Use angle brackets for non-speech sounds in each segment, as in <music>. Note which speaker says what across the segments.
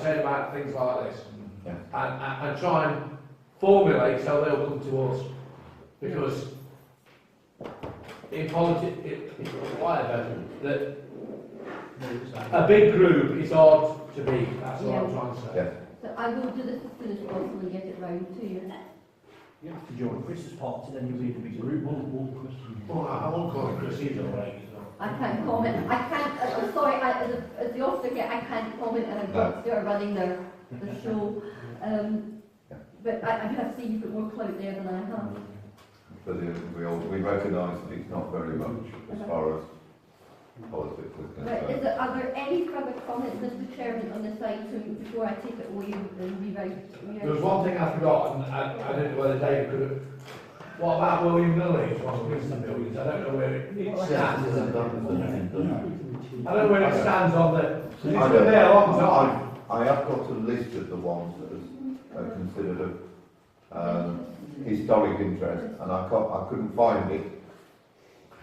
Speaker 1: about things like this.
Speaker 2: Yeah.
Speaker 1: And, and, and try and formulate how they'll come to us. Because in politics, whatever, that a big group is hard to be, that's what I'm trying to say.
Speaker 2: Yeah.
Speaker 3: So I will do the village council and get it round to you.
Speaker 4: You have to join Chris's party, then you'll either be group one or Christian.
Speaker 1: Well, I I won't call it procedural right, you know.
Speaker 3: I can't comment, I can't, I- I'm sorry, I, as, a- as the officer here, I can't comment, and I've got, you're running the, the show. Um, but I, I have seen you put more clout there than I have.
Speaker 2: But uh, we all, we recognise that it's not very much as far as politics is
Speaker 3: But is
Speaker 2: concerned.
Speaker 3: there, are there any further comments, Mr Chairman, on this item before I take it away and rewrite?
Speaker 1: There was one thing I forgot, and I, I don't know whether David could have, what about William Lilly, one of Winston buildings, I don't know where it it stands. I don't know where it stands on the, it's been
Speaker 2: I don't-
Speaker 1: there a long time.
Speaker 2: I have got a list of the ones that are
Speaker 3: Mm-hmm.
Speaker 2: considered of um, historic interest, and I can't, I couldn't find it.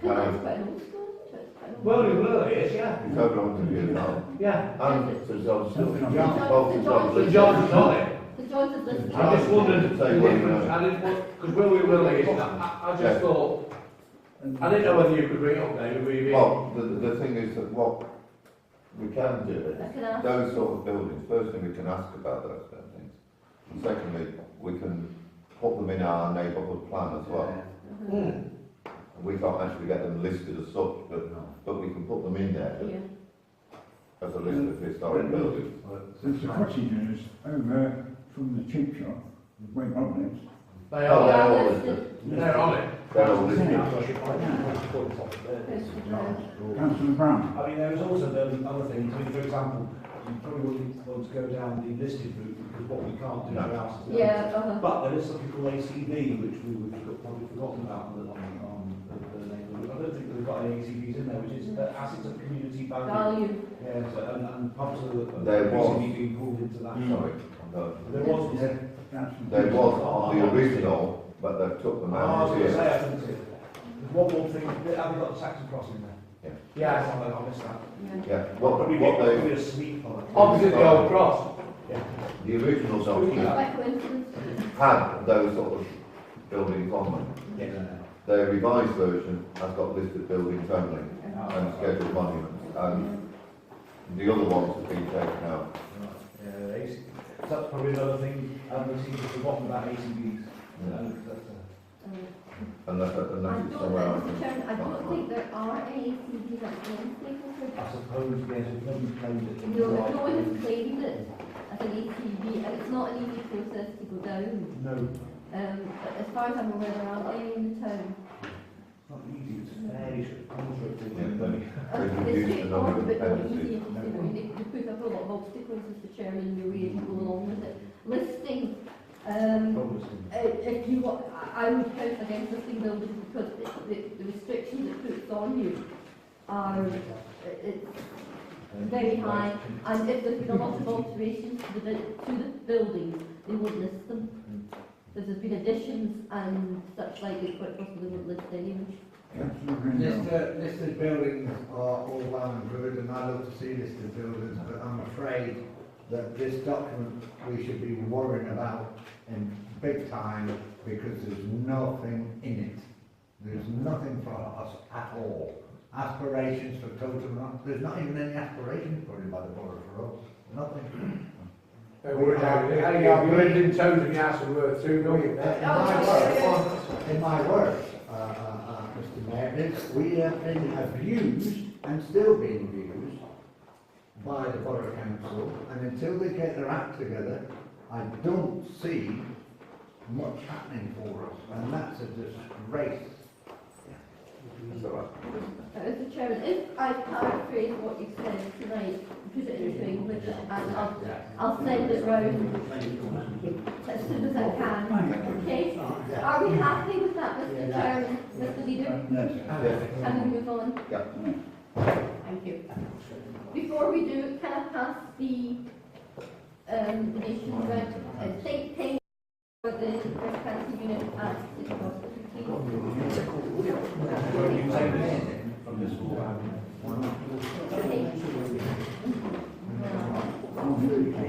Speaker 3: Because that's
Speaker 2: Um,
Speaker 3: quite an old school, isn't it? It's quite an old-
Speaker 1: William Lilly is, yeah,
Speaker 2: it's over on the
Speaker 3: <laughs>
Speaker 2: view now,
Speaker 1: yeah.
Speaker 2: and Sir John
Speaker 4: Sir
Speaker 2: Stuart.
Speaker 3: John-
Speaker 2: Oh, Sir
Speaker 3: Sir
Speaker 2: John
Speaker 1: But
Speaker 3: John
Speaker 2: Stuart.
Speaker 1: John's not it.
Speaker 3: The Johnson's listed.
Speaker 1: I just wondered the
Speaker 2: Say William
Speaker 1: difference,
Speaker 2: Lilly.
Speaker 1: I didn't, because William Lilly is, I, I- I
Speaker 2: Yeah.
Speaker 1: just thought, I didn't know whether you could bring it up, David, were you?
Speaker 2: Well, the, the thing is that what we can do
Speaker 3: I
Speaker 2: is,
Speaker 3: can ask.
Speaker 2: those sort of buildings, firstly, we can ask about those sort of things. And secondly, we can put them in our neighbourhood plan as well.
Speaker 3: Mhm.
Speaker 1: Hmm.
Speaker 2: And we can't actually get them listed as such, but, but we can put them in there
Speaker 3: Yeah.
Speaker 2: as a list of historic buildings.
Speaker 5: Since the cottages over from the cheap shop, went on
Speaker 1: They are,
Speaker 2: Oh, they're
Speaker 3: Yeah,
Speaker 2: all
Speaker 3: that's
Speaker 2: listed.
Speaker 1: they're on it.
Speaker 2: They're all listed.
Speaker 5: it, councillor Brown.
Speaker 6: I mean, there is also then other things, I mean, for example, you probably wouldn't want to go down the listed route because what we can't do
Speaker 2: No.
Speaker 6: for houses.
Speaker 3: Yeah, uh-huh.
Speaker 6: But there is something called ACB, which we would have probably forgotten about on, on the- the neighbourhood. I don't think we've got any ACBs in there, which is the assets of community value.
Speaker 3: value.
Speaker 6: Yeah, so, and, and pubs are
Speaker 2: There
Speaker 6: are
Speaker 2: was. Hmm.
Speaker 6: recently being pulled into that.
Speaker 2: Sorry, no.
Speaker 6: There was, yeah.
Speaker 2: There was on the original, but they took them
Speaker 6: I was
Speaker 2: out
Speaker 6: going to
Speaker 2: here.
Speaker 6: say, I think, Ah, there's one more thing, have we got the Saxon Cross in there?
Speaker 1: Yeah,
Speaker 6: I know, I missed that.
Speaker 3: Yeah.
Speaker 2: Yeah, what, what
Speaker 6: Probably
Speaker 2: they, Oh.
Speaker 6: a sweep on it.
Speaker 1: opposite the old cross.
Speaker 2: the original
Speaker 3: It's
Speaker 2: document
Speaker 3: by coincidence.
Speaker 2: had those sort of buildings on them. Their revised version has got listed buildings only and scheduled monuments, and the other ones have been taken out.
Speaker 6: Yeah, AC that's probably another thing, um, we seem to have forgotten about ACBs.
Speaker 2: Yeah.
Speaker 6: Um, that's, uh,
Speaker 3: Um,
Speaker 2: Unless,
Speaker 3: I
Speaker 2: unless
Speaker 3: don't,
Speaker 2: it's somewhere else.
Speaker 3: Mr. Chairman, I don't think there are any CDs at
Speaker 6: I suppose, yes, if nobody's claimed it. then
Speaker 3: No,
Speaker 6: you're
Speaker 3: no one
Speaker 6: right.
Speaker 3: has claimed it as an ATV, and it's not an easy process to go down.
Speaker 6: No,
Speaker 3: Um, as far as I'm aware, there aren't any in the town.
Speaker 6: it's not easy, it's fairly sort of convoluted,
Speaker 2: Yeah.
Speaker 6: but-
Speaker 3: Um,
Speaker 2: They
Speaker 3: It's
Speaker 2: reduced the number
Speaker 3: straightforward,
Speaker 2: of
Speaker 3: but not
Speaker 2: dependencies.
Speaker 3: easy. I mean, they, they put up a lot of obstacles, Mr. Chairman, in your way to go along with it. Listing, um,
Speaker 6: Problems in-
Speaker 3: Uh, if you want, I I would count against listing buildings because the, the, the restrictions it puts on you are, it's uh, very high.
Speaker 6: Uh,
Speaker 3: And if there's been a lot of alterations to the, bu- to the buildings, they won't list them. If there's been additions and such like, it's quite possible they won't list anyway.
Speaker 5: Councillor Grindle.
Speaker 7: Listed, listed buildings are all well and good, and I love to see listed buildings, but I'm afraid that this document, we should be worrying about in big time, because there's nothing in it. There's nothing for us at all. Aspirations for Coulter, there's not even any aspirations put in by the borough for us, nothing.
Speaker 1: They were down there. Hey, I've lived in towns and houses worth two million
Speaker 7: Uh, In
Speaker 1: there.
Speaker 7: my words, in my words, uh, uh, uh, Mr Mayor, this- we have been abused and still being abused by the Borough Council, and until they get their act together, I don't see much happening for us, and that's a disgrace.
Speaker 2: It's all right.
Speaker 3: Uh, Mr Chairman, if I paraphrase what you said tonight, put it into English and I'll, I'll send it round as soon as I can. Okay, are we happy with that, Mr Chairman, Mr Leader?
Speaker 5: Yes.
Speaker 2: Yeah,
Speaker 3: Can we move on?
Speaker 2: yeah.
Speaker 3: Thank you. Before we do, can I pass the, um, the nation red, uh, think tank for the breast cancer unit at City Hospital, please?
Speaker 6: Well, you take this from this wall, haven't you?
Speaker 3: Thank you.
Speaker 5: Oh, really?